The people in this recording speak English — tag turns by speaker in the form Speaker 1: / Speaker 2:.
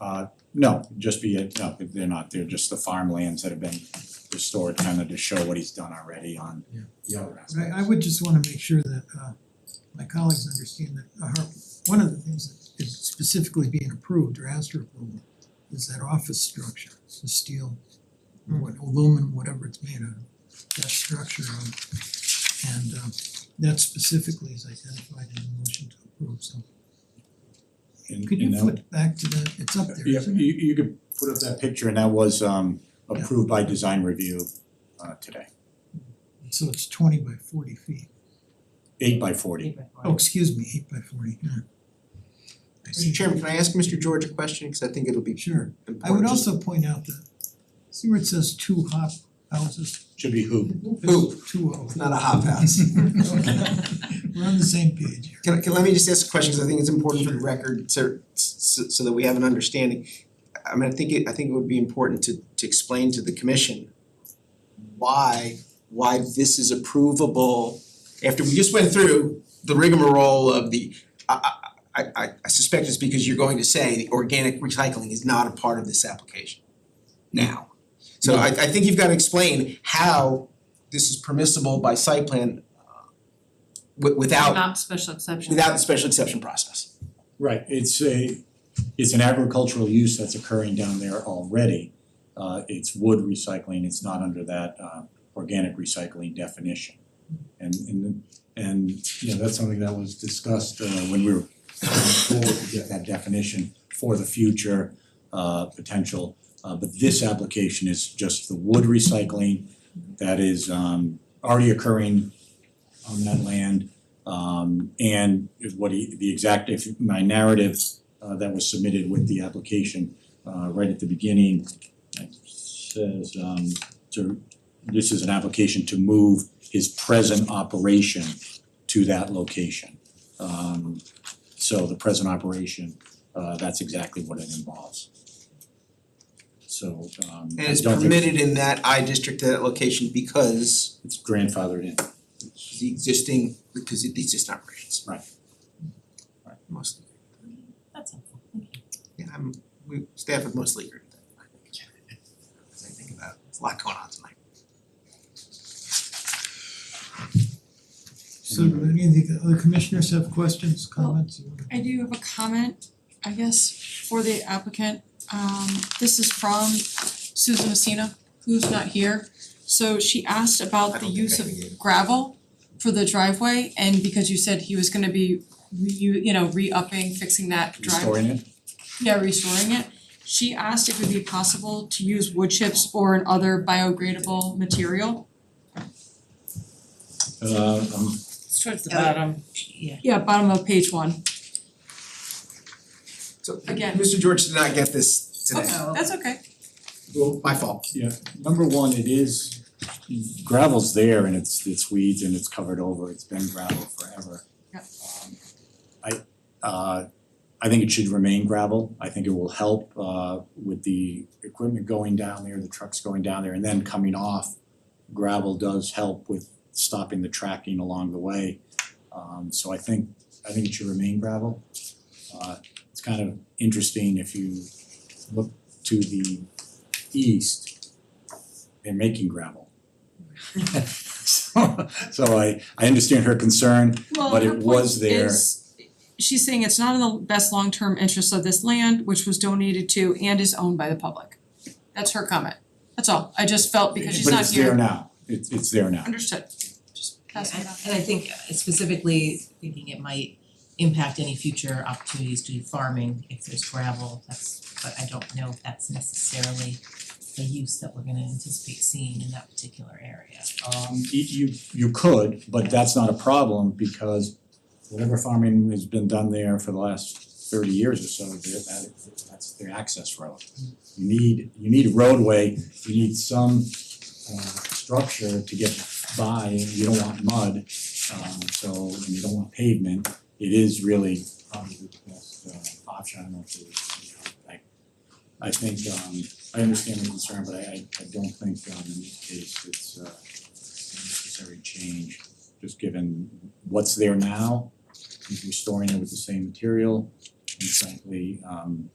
Speaker 1: Uh no, just be it, no, they're not, they're just the farmlands that have been restored, kind of to show what he's done already on
Speaker 2: Yeah.
Speaker 1: other aspects.
Speaker 3: But I I would just wanna make sure that uh my colleagues understand that our, one of the things that is specifically being approved or asked for approval is that office structure, the steel, or what aluminum, whatever it's made out of, that structure on. And um that specifically is identified in the motion to approve, so
Speaker 1: And-
Speaker 3: could you
Speaker 1: and that-
Speaker 3: flip back to the, it's up there,
Speaker 1: Yeah,
Speaker 3: isn't it?
Speaker 1: you you could put up that picture and that was um
Speaker 3: Yeah.
Speaker 1: approved by design review uh today,
Speaker 3: So it's twenty by forty feet,
Speaker 1: eight by forty.
Speaker 3: oh, excuse me, eight by forty, yeah. I see.
Speaker 4: Mr. Chairman, can I ask Mr. George a question, cause I think it'll be
Speaker 3: Sure.
Speaker 4: important.
Speaker 3: I would
Speaker 4: Just-
Speaker 3: also point out that, see where it says two hop houses?
Speaker 1: Should be hoop.
Speaker 4: Hoop.
Speaker 3: Two O.
Speaker 4: It's not a hop house.
Speaker 3: We're on the same page here.
Speaker 4: Can I, can, let me just ask a question, cause I think it's important for the record, so, so, so that we have an understanding. I mean, I think it, I think it would be important to, to explain to the commission why, why this is approvable. After we just went through the rigmarole of the, I, I, I, I suspect it's because you're going to say the organic recycling is not a part of this application now. So I, I think you've gotta explain how this is permissible by site plan uh, wi- without
Speaker 5: Not special exception.
Speaker 4: without the special exception process.
Speaker 1: Right, it's a, it's an agricultural use that's occurring down there already. Uh it's wood recycling, it's not under that uh organic recycling definition. And and and you know, that's something that was discussed uh when we were going forward to get that definition for the future uh potential. Uh but this application is just the wood recycling that is um already occurring on that land. Um and if what he, the exact, if my narrative uh that was submitted with the application uh right at the beginning it says um to, this is an application to move his present operation to that location. Um so the present operation, uh that's exactly what it involves. So um
Speaker 4: And
Speaker 1: I
Speaker 4: it's
Speaker 1: don't think
Speaker 4: permitted in that I district, that location because
Speaker 1: it's grandfathered in.
Speaker 4: the existing, because of the existing operations.
Speaker 1: Right. Right.
Speaker 4: Mostly,
Speaker 5: That's helpful, thank you.
Speaker 4: yeah, I'm, we, staff have mostly agreed with that. As I think about, it, there's a lot going on tonight.
Speaker 3: So do any of the other commissioners have questions, comments? you wanna-
Speaker 6: I do have a comment, I guess, for the applicant. Um this is from Susan Messina, who's not here. So she asked
Speaker 4: I
Speaker 6: about the
Speaker 4: don't think
Speaker 6: use
Speaker 4: I
Speaker 6: of
Speaker 4: can get it.
Speaker 6: gravel for the driveway and because you said he was gonna be re- you you know, re-upping, fixing that driveway.
Speaker 1: Restoring it?
Speaker 6: Yeah, restoring it. She asked if it would be possible to use wood chips or an other biogradable material.
Speaker 1: Uh um
Speaker 5: It's towards the bottom, yeah.
Speaker 6: Yeah, bottom of page one.
Speaker 4: So
Speaker 6: Again.
Speaker 4: Mr. George did not get this today.
Speaker 6: Okay, Oh, that's okay.
Speaker 1: well,
Speaker 4: My fault.
Speaker 1: Yeah, number one, it is gravel's there and it's it's weeds and it's covered over, it's been gravel forever.
Speaker 6: Yep.
Speaker 1: Um, I uh I think it should remain gravel, I think it will help uh with the equipment going down there, the trucks going down there and then coming off. Gravel does help with stopping the tracking along the way, um so I think I think it should remain gravel. Uh it's kind of interesting if you look to the east, they're making gravel. So so I I understand her concern,
Speaker 6: Well,
Speaker 1: But
Speaker 6: her
Speaker 1: it
Speaker 6: point
Speaker 1: was there.
Speaker 6: is, she's saying it's not in the best long-term interest of this land, which was donated to and is owned by the public. That's her comment, that's all, I just felt
Speaker 1: but
Speaker 6: because she's not
Speaker 1: it's there
Speaker 6: here,
Speaker 1: now, it's it's there now.
Speaker 6: understood, just pass it
Speaker 5: And
Speaker 6: on.
Speaker 5: and I think specifically thinking it might impact any future opportunities to do farming if there's gravel, that's, but I don't know if that's necessarily the use that we're gonna anticipate seeing in that particular area.
Speaker 1: Um y- you you could, but that's not a problem because whatever farming has been done there for the last thirty years or so, there that that's their access road. You need you need a roadway, you need some uh structure to get by, and you don't want mud, um so and you don't want pavement. It is really probably the best uh option, I don't know if it's, you know, I I think um I understand the concern, but I I I don't think um in this case it's uh necessary change, just given what's there now, he's restoring it with the same material. And frankly, um